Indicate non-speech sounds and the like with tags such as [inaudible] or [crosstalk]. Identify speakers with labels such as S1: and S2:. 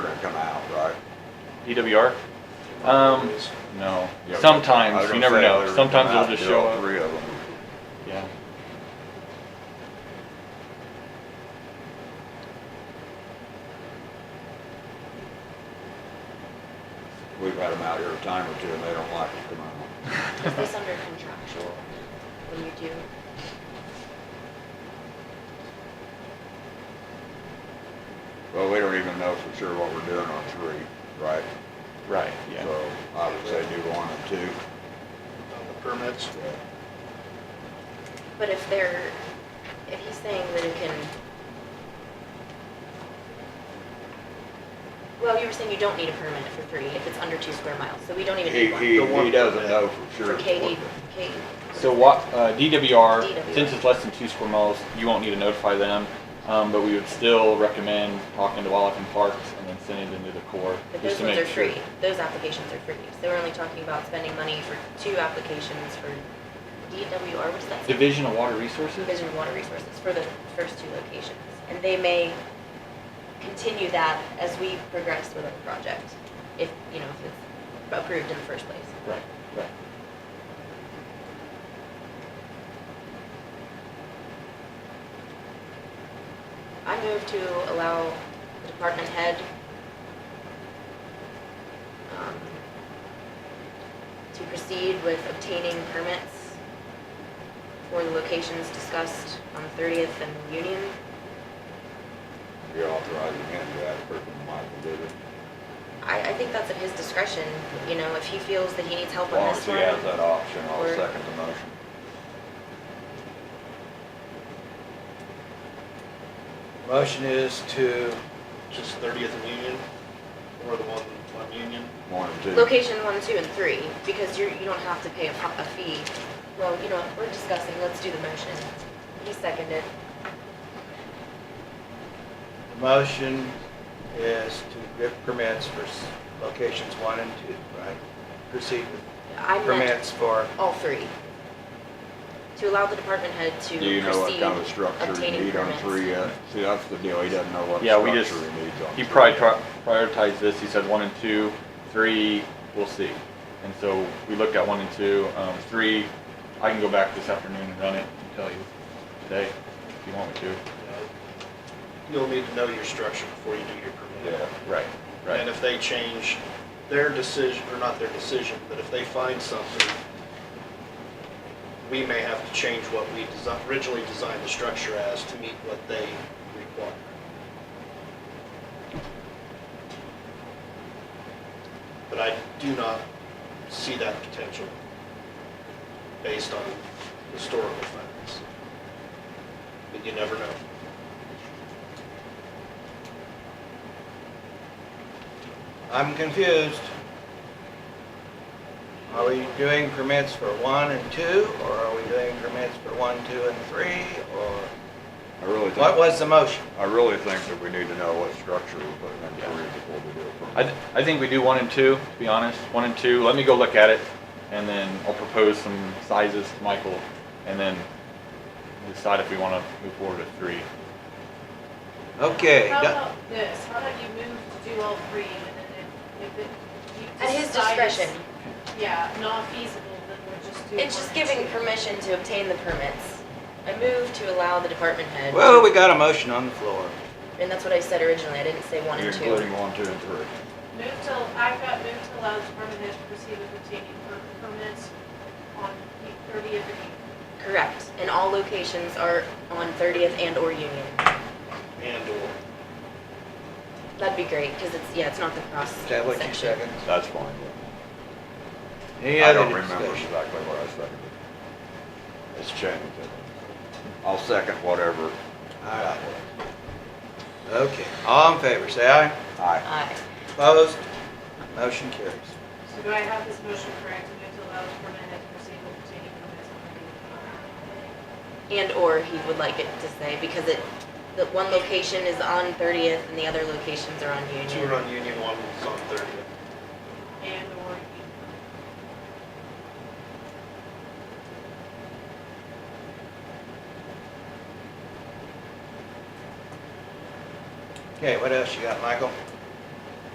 S1: come out, right?
S2: DWR? Um, E no. Sometimes, you never know. Sometimes it'll just show up.
S1: Three of them.
S2: Yeah.
S1: We've had them out here a time or two and they don't like to come
S2: [laughs]
S1: out.
S3: Is this under contractual when you do?
S1: Well, we don't even know for sure what we're doing on three, right?
S2: Right, yeah.
S1: So I would say do one and two.
S4: on the permits.
S1: yeah.
S3: But if they're, if he's saying that it can, well, you were saying you don't need a permit for three if it's under two square miles, so we don't even
S1: He,
S3: need one.
S1: he,
S4: The one
S1: he doesn't know for sure.
S3: For KD, KD.
S2: So what, uh, DWR,
S3: DWR.
S2: since it's less than two square miles, you won't need to notify them. Um, but we would still recommend talking to Wallach and Parks and then sending them to the Corps.
S3: But
S2: just
S3: those
S2: to
S3: ones
S2: make
S3: are
S2: sure.
S3: free, those applications are free, so we're only talking about spending money for two applications for DWR, what's that? stand
S2: Division of Water Resources?
S3: Division of Water Resources for the first two locations. And they may continue that as we progress with the project, if, you know, if it's approved in the first place.
S2: Right, right.
S3: I move to allow the department head um, to proceed with obtaining permits for the locations discussed on 30th and Union.
S1: You're authorizing him to ask for the Michael did it.
S3: I, I think that's at his discretion, you know, if he feels that he needs help
S1: As
S3: on
S1: long as
S3: this
S1: he
S3: one.
S1: has that option, I'll
S3: Or-
S1: second the motion.
S4: Motion is to. Just 30th and Union, or the one on Union.
S1: One and two.
S3: Location one, two, and three, because you're, you don't have to pay a, po- a fee. Well, you know, what, we're discussing, let's do the motion. He seconded.
S4: The motion is to give permits for s- locations one and two, right? Proceed with
S3: I meant.
S4: permits for,
S3: all three. To allow the department head to
S1: Do you know what
S3: proceed
S1: kind of structure you
S3: obtaining
S1: need on
S3: permits.
S1: three yet? See, that's the deal, he doesn't know what
S2: Yeah, we
S1: structure
S2: just-
S1: he needs on
S2: He
S1: three.
S2: probably tri- prioritized this, he said one and two, three, we'll see. And so we looked at one and two, um, three, I can go back this afternoon and run it and tell you today if you want me
S4: uh,
S2: to.
S4: you'll need to know your structure before you do your permit.
S1: Yeah,
S2: Right,
S4: And
S2: right.
S4: if they change their decision, or not their decision, but if they find something, we may have to change what we desi- originally designed the structure as to meet what they require. But I do not see that potential based on historical facts. But you never know.
S5: I'm confused. Are we doing permits for one and two, or are we doing permits for one, two, and three, or
S1: I really
S5: what
S1: think,
S5: was the motion?
S1: I really think that we need to know what structure we're putting on
S2: Yeah.
S1: three before we do it.
S2: I, th- I think we do one and two, to be honest, one and two, let me go look at it, and then I'll propose some sizes to Michael, and then decide if we wanna move forward with three.
S5: Okay,
S6: How
S5: do-
S6: about this, how about you move to do all three, and then if, if it. you
S3: At his
S6: decide it's-
S3: discretion.
S6: Yeah, not feasible, then we'll just do one.
S3: It's just
S6: and
S3: giving
S6: two.
S3: permission to obtain the permits. I move to allow the department head.
S5: well, we got a motion on the floor.
S3: And that's what I said originally, I didn't say one
S1: You're
S3: and two.
S1: Including one, two, and three.
S6: Move to, I've got moved to allow the department head to proceed with obtaining per- permits on the thirtieth of
S3: Correct, and all locations are on 30th and or Union.
S4: And/or
S3: That'd be great, because it's, yeah, it's not the cross
S5: Is that what you
S3: section.
S5: seconded?
S1: That's fine.
S5: Any
S1: I
S5: other
S1: don't remember
S5: discussion?
S1: exactly what I seconded. It's changed. I'll second whatever.
S5: All right. Okay, all in favor, say aye.
S1: Aye.
S3: Aye.
S5: Opposed? Motion carries.
S6: So do I have this motion correct, to move to allow the department head to proceed with obtaining permits on the
S3: And or he would like it to say, because it, the one location is on 30th and the other locations are on Union.
S4: two are on Union, one is on 30th.
S6: and or you.
S5: Okay, what else you got, Michael?